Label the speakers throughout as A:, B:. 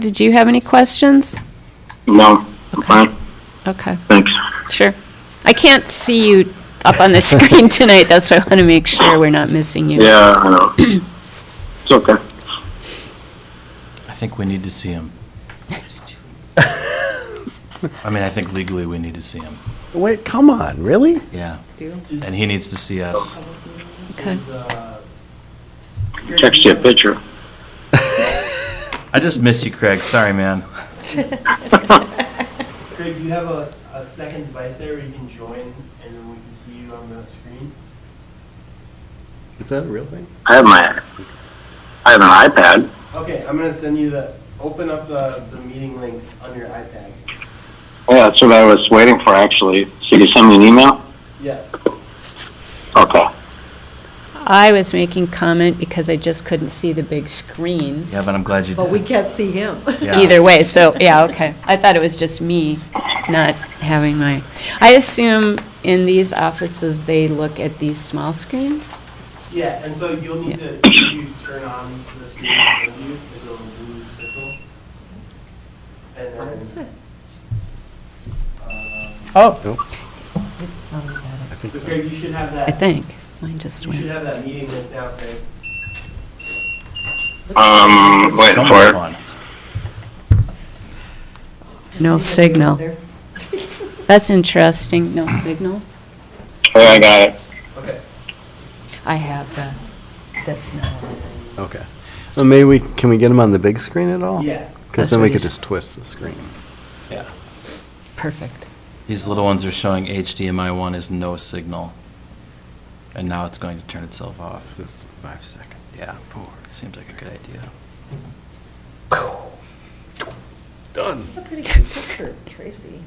A: did you have any questions?
B: No, I'm fine,
A: Okay,
B: thanks.
A: sure. I can't see you up on the screen tonight, that's why I want to make sure we're not missing you.
B: Yeah, I know. It's okay.
C: I think we need to see him. I mean, I think legally we need to see him,
D: Wait, come on, really?
C: yeah. And he needs to see us.
A: Okay.
B: Text you a picture.
C: I just missed you, Craig, sorry, man.
E: Craig, do you have a, a second device there where you can join and then we can see you on the screen?
D: Is that a real thing?
B: I have my, I have an iPad.
E: Okay, I'm gonna send you the, open up the, the meeting link on your iPad.
B: Yeah, that's what I was waiting for, actually. So you send me an email?
E: Yeah,
B: Okay.
A: I was making comment because I just couldn't see the big screen
C: Yeah, but I'm glad you
F: But we
C: did.
F: can't see him.
C: Yeah.
A: either way, so, yeah, okay. I thought it was just me not having my, I assume in these offices, they look at these small screens?
E: yeah, and so you'll need to, if you turn on to the screen in front of you, there's a little blue circle. And
F: That's
E: then,
F: it.
E: um,
D: Oh.
E: so Craig, you should have
A: I
E: that,
A: think. Mine just
E: you should
A: went.
E: have that meeting link now, Craig.
B: Um, wait
C: So much
B: for it.
C: fun.
A: No signal. That's interesting, no signal.
B: Oh, I got it.
E: Okay,
A: I have the, this now.
D: Okay. So maybe we, can we get him on the big screen at all?
E: yeah,
A: That's
D: Because then
A: what
D: we could
A: he's-
D: just twist the screen.
C: Yeah.
A: Perfect.
C: These little ones are showing HDMI one is no signal. And now it's going to turn itself off.
D: Just five seconds.
C: Yeah, four, seems like a good idea.
F: A pretty good picture, Tracy.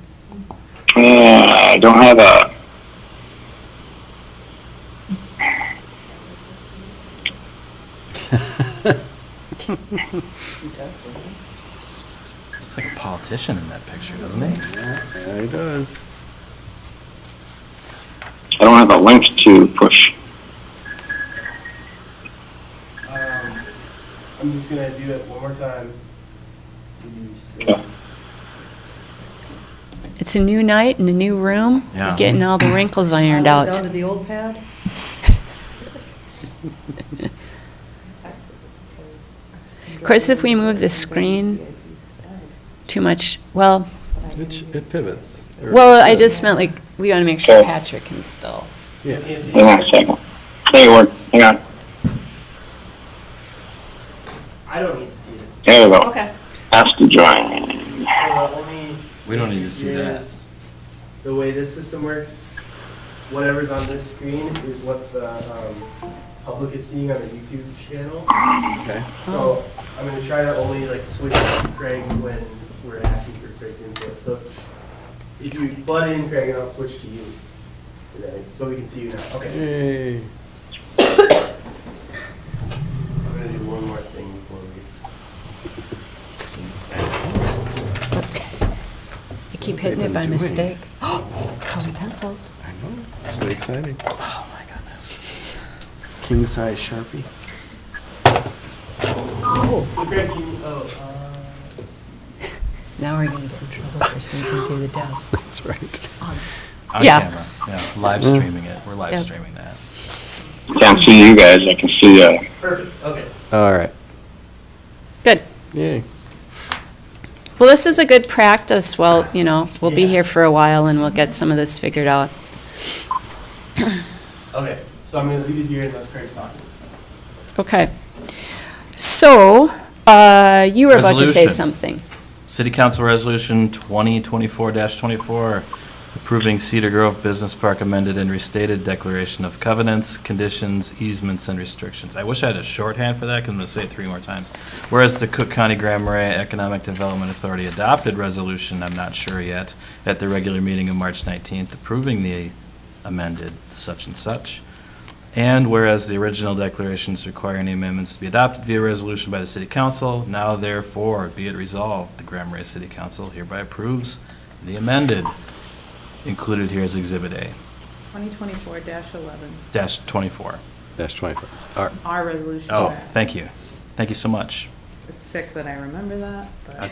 B: Uh, I don't have a.
F: He does. doesn't he?
C: It's like a politician in that picture, doesn't he?
D: There he does.
B: I don't have a link to push.
E: um, I'm just gonna do it one more time. to be safe.
B: Yeah.
A: It's a new night and a new room. We're
C: Yeah.
A: Getting all the wrinkles ironed
F: Uh,
A: out.
F: Down to the old pad?
A: Of course, if we move the screen too much, well,
D: It, sh- it pivots. Or-
A: well, I just meant like, we want to make sure
B: Okay.
A: Patrick can still.
D: Yeah.
E: Nancy,
B: Hang on a second. There you were. Hang on.
E: I don't need to see it.
B: There we go. Ask to join.
E: So the only
C: We don't need
E: issue
C: to see
E: here
C: that.
E: is The way this system works, whatever's on this screen is what the um, public is seeing on the YouTube channel.
D: Okay.
E: So I'm gonna try to only like switch to Craig when we're asking for Craig's input. So if you butt in Craig, and I'll switch to you. today, So we can see you now. Okay.
D: Yay.
E: I'm gonna do one more thing before we.
A: I keep hitting it
D: They've
A: by
D: been doing.
A: mistake. Colored pencils.
D: I know. It's really exciting. Oh, my goodness. King size Sharpie.
E: So Craig, can you, oh, uh,
A: Now we're going to get in trouble for sneaking through the desk.
D: That's right.
C: On
A: Yeah.
C: camera, yeah, live streaming it, we're live
A: Yeah.
C: streaming that.
B: Can't see you guys. I can see, uh,
E: perfect, okay.
D: All right.
A: Good.
D: Yay.
A: Well, this is a good practice. Well, you know, we'll be
E: Yeah.
A: here for a while and we'll get some of this figured out.
E: Okay, so I'm gonna leave it here unless Craig's talking.
A: Okay. So, uh, you were about to say
C: Resolution.
A: something.
C: City Council Resolution 2024-24, approving Cedar Grove Business Park amended and restated declaration of covenants, conditions, easements, and restrictions. I wish I had a shorthand for that, because I'm going to say it three more times. Whereas the Cook County Grand Marais Economic Development Authority adopted resolution, I'm not sure yet, at the regular meeting of March 19th, approving the amended such and such. And whereas the original declarations require any amendments to be adopted via resolution by the city council, now therefore be it resolved, the Grand Marais City Council hereby approves the amended, included here is Exhibit A,
G: 2024-11,
C: dash 24.
D: Dash 25. All right.
G: our resolution.
C: Oh, thank you. Thank you so much.
G: It's sick that I remember that, but.